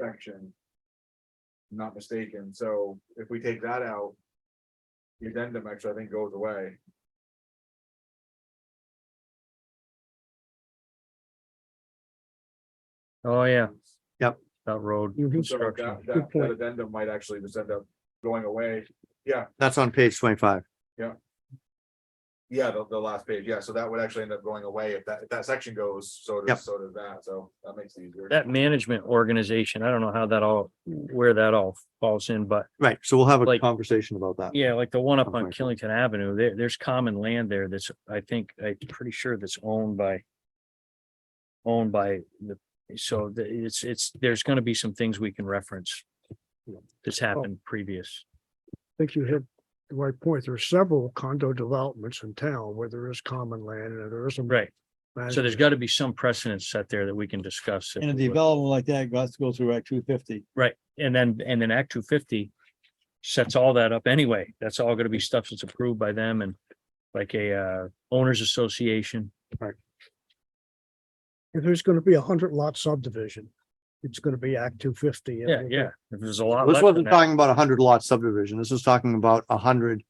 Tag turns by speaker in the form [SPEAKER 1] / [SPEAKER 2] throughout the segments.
[SPEAKER 1] section. I'm Not mistaken, so if we take that out. The addendum actually, I think, goes away.
[SPEAKER 2] Oh, yeah.
[SPEAKER 3] Yep.
[SPEAKER 2] That road
[SPEAKER 1] So that,
[SPEAKER 2] construction.
[SPEAKER 1] that that addendum might actually just end up going away.
[SPEAKER 3] That's on page twenty-five.
[SPEAKER 1] Yeah, the, the last page, yeah, so that would actually end up going away if that, if that section goes, so
[SPEAKER 3] Yep.
[SPEAKER 1] does, so does that, so that makes it easier.
[SPEAKER 2] That management organization, I don't know how that all, where that all falls in, but
[SPEAKER 3] Right, so we'll have a
[SPEAKER 2] Like-
[SPEAKER 3] conversation about that.
[SPEAKER 2] yeah, like the one up on
[SPEAKER 3] Okay.
[SPEAKER 2] Killington Avenue, there, there's common land there that's, I think, I'm pretty sure that's owned by owned by the, so the- it's, it's, there's gonna be some things we can reference that's happened previous.
[SPEAKER 4] think you hit the right point. There are several condo developments in town where there is common land and there is some.
[SPEAKER 2] Right. So there's
[SPEAKER 4] management.
[SPEAKER 2] got to be some precedent set there that we can discuss. if
[SPEAKER 5] And a
[SPEAKER 2] we would.
[SPEAKER 5] development like that got to go through Act two fifty.
[SPEAKER 2] Right, and then, and then Act two fifty sets all that up anyway. That's all gonna be stuff that's approved by them and like a uh owners association.
[SPEAKER 4] If there's gonna be a hundred lot subdivision, it's gonna be Act two fifty.
[SPEAKER 2] Yeah, yeah. If there's a lot.
[SPEAKER 3] This
[SPEAKER 2] left in
[SPEAKER 3] wasn't
[SPEAKER 2] that-
[SPEAKER 3] talking about a hundred lot subdivision. This is talking about a hundred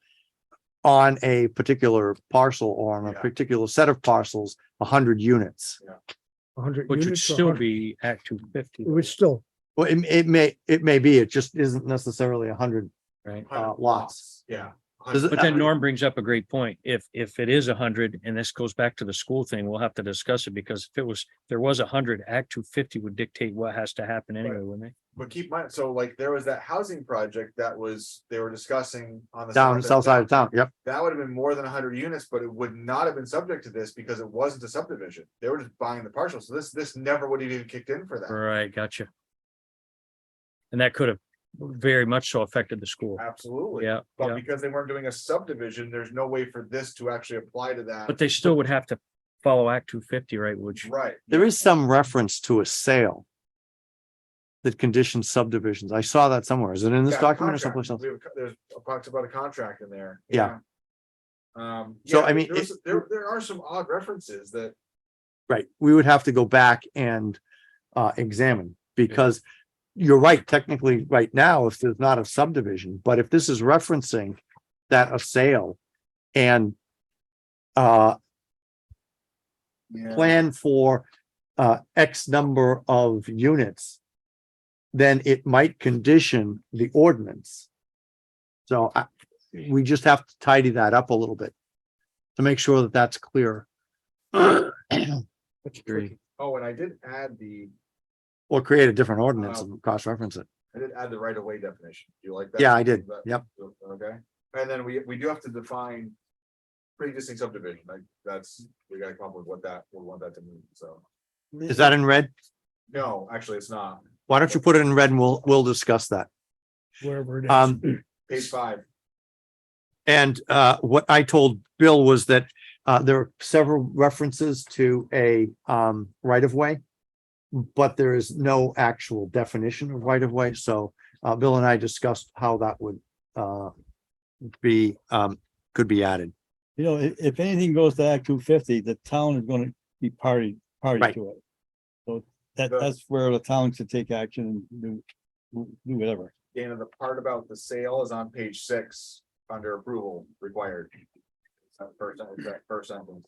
[SPEAKER 3] on a particular parcel or on a
[SPEAKER 1] Yeah.
[SPEAKER 3] particular set of parcels, a hundred units.
[SPEAKER 4] Hundred
[SPEAKER 2] Which would
[SPEAKER 4] units. or
[SPEAKER 2] still
[SPEAKER 4] 100
[SPEAKER 2] be Act two fifty.
[SPEAKER 4] It would still,
[SPEAKER 3] Well, it, it may, it may be, it just isn't necessarily a hundred
[SPEAKER 2] Right.
[SPEAKER 3] uh, lots.
[SPEAKER 1] Yeah.
[SPEAKER 3] Does it-
[SPEAKER 2] But then Norm brings up a great point. If, if it is a hundred and this goes back to the school thing, we'll have to discuss it because if it was, there was a hundred, Act two fifty would dictate what has to happen anyway, wouldn't it?
[SPEAKER 1] But keep in mind, so like there was that housing project that was, they were discussing on the.
[SPEAKER 3] Down,
[SPEAKER 1] south end.
[SPEAKER 3] south side of town, yep.
[SPEAKER 1] That would have been more than hundred units, but it would not have been subject to this because it wasn't a subdivision. They were just buying the parcel, so this, this never would have even kicked in for that.
[SPEAKER 2] Right, gotcha. And that could have very much so affected the school.
[SPEAKER 1] Absolutely.
[SPEAKER 2] Yeah,
[SPEAKER 1] But
[SPEAKER 2] yeah.
[SPEAKER 1] because they weren't doing a subdivision, there's no way for this to actually apply to that.
[SPEAKER 2] But they still would have to follow Act two fifty, right, which,
[SPEAKER 1] Right.
[SPEAKER 3] There is some reference to a sale that conditions subdivisions. I saw that somewhere. Is it in this
[SPEAKER 1] Yeah,
[SPEAKER 3] document or
[SPEAKER 1] contract.
[SPEAKER 3] someplace else?
[SPEAKER 1] We have a co- There's a box about a contract in there. yeah.
[SPEAKER 3] Yeah.
[SPEAKER 1] Um.
[SPEAKER 3] So,
[SPEAKER 1] yeah,
[SPEAKER 3] I mean,
[SPEAKER 1] there was-
[SPEAKER 3] it-
[SPEAKER 1] There, there are some odd references that,
[SPEAKER 3] Right, we would have to go back and uh examine because you're right, technically, right now, if there's not a subdivision, but if this is referencing that a sale and uh
[SPEAKER 1] yeah,
[SPEAKER 3] plan for uh X number of units, then it might condition the ordinance. So I, we just have to tidy that up a little bit to make sure that that's clear.
[SPEAKER 1] oh, and I did add the,
[SPEAKER 3] Or create a different ordinance
[SPEAKER 1] Um,
[SPEAKER 3] and cross-reference it.
[SPEAKER 1] I did add the right of way definition. Do you like that?
[SPEAKER 3] Yeah, I did.
[SPEAKER 1] That-
[SPEAKER 3] Yep.
[SPEAKER 1] Okay, and then we, we do have to define pre-existing subdivision, like, that's, we gotta come up with what that, we want that to mean, so.
[SPEAKER 3] Is that in red?
[SPEAKER 1] No, actually, it's not.
[SPEAKER 3] Why don't you put it in red and we'll, we'll discuss that.
[SPEAKER 4] wherever it is.
[SPEAKER 3] Um,
[SPEAKER 1] Page five,
[SPEAKER 3] and, uh, what I told Bill was that, uh, there are several references to a, um, right of way. But there is no actual definition of right of way. So, uh, Bill and I discussed how that would, uh, be, um, could be added.
[SPEAKER 5] You know, if, if anything goes to Act two fifty, the town is gonna be party, party
[SPEAKER 3] Right.
[SPEAKER 5] to it. So that,
[SPEAKER 1] The-
[SPEAKER 5] that's where the town should take action and do, do whatever.
[SPEAKER 1] Dana, the part about the sale is on page six, under approval required. That First, that first sentence.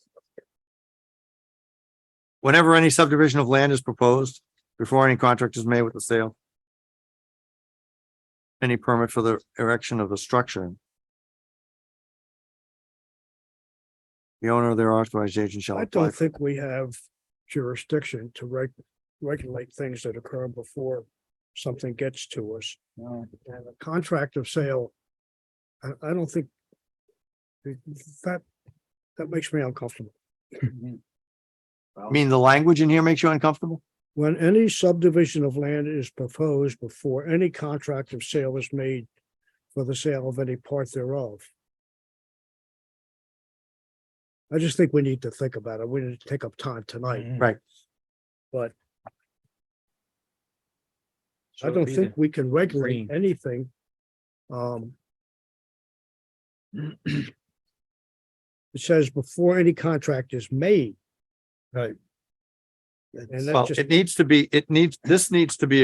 [SPEAKER 3] Whenever any subdivision of land is proposed, before any contract is made with the sale. Any permit for the erection of a structure. The owner of their authorized agent shall
[SPEAKER 4] I
[SPEAKER 3] apply.
[SPEAKER 4] don't
[SPEAKER 3] for-
[SPEAKER 4] think we have jurisdiction to reg- regulate things that occur before something gets to us. And a contract of sale, I, I don't think that, that makes me uncomfortable.
[SPEAKER 3] I mean, the language in here makes you uncomfortable?
[SPEAKER 4] When any subdivision of land is proposed before any contract of sale is made for the sale of any part thereof. I just think we need to think about it. We need to take up time
[SPEAKER 2] Mm-hmm.
[SPEAKER 4] tonight.
[SPEAKER 2] So
[SPEAKER 4] I
[SPEAKER 2] it'd
[SPEAKER 4] don't
[SPEAKER 2] be
[SPEAKER 4] think we can regulate
[SPEAKER 2] green.
[SPEAKER 4] anything. Um. It says before any contract is made. Right. And
[SPEAKER 3] Well,
[SPEAKER 4] that's just
[SPEAKER 3] it needs to be, it needs, this needs to be a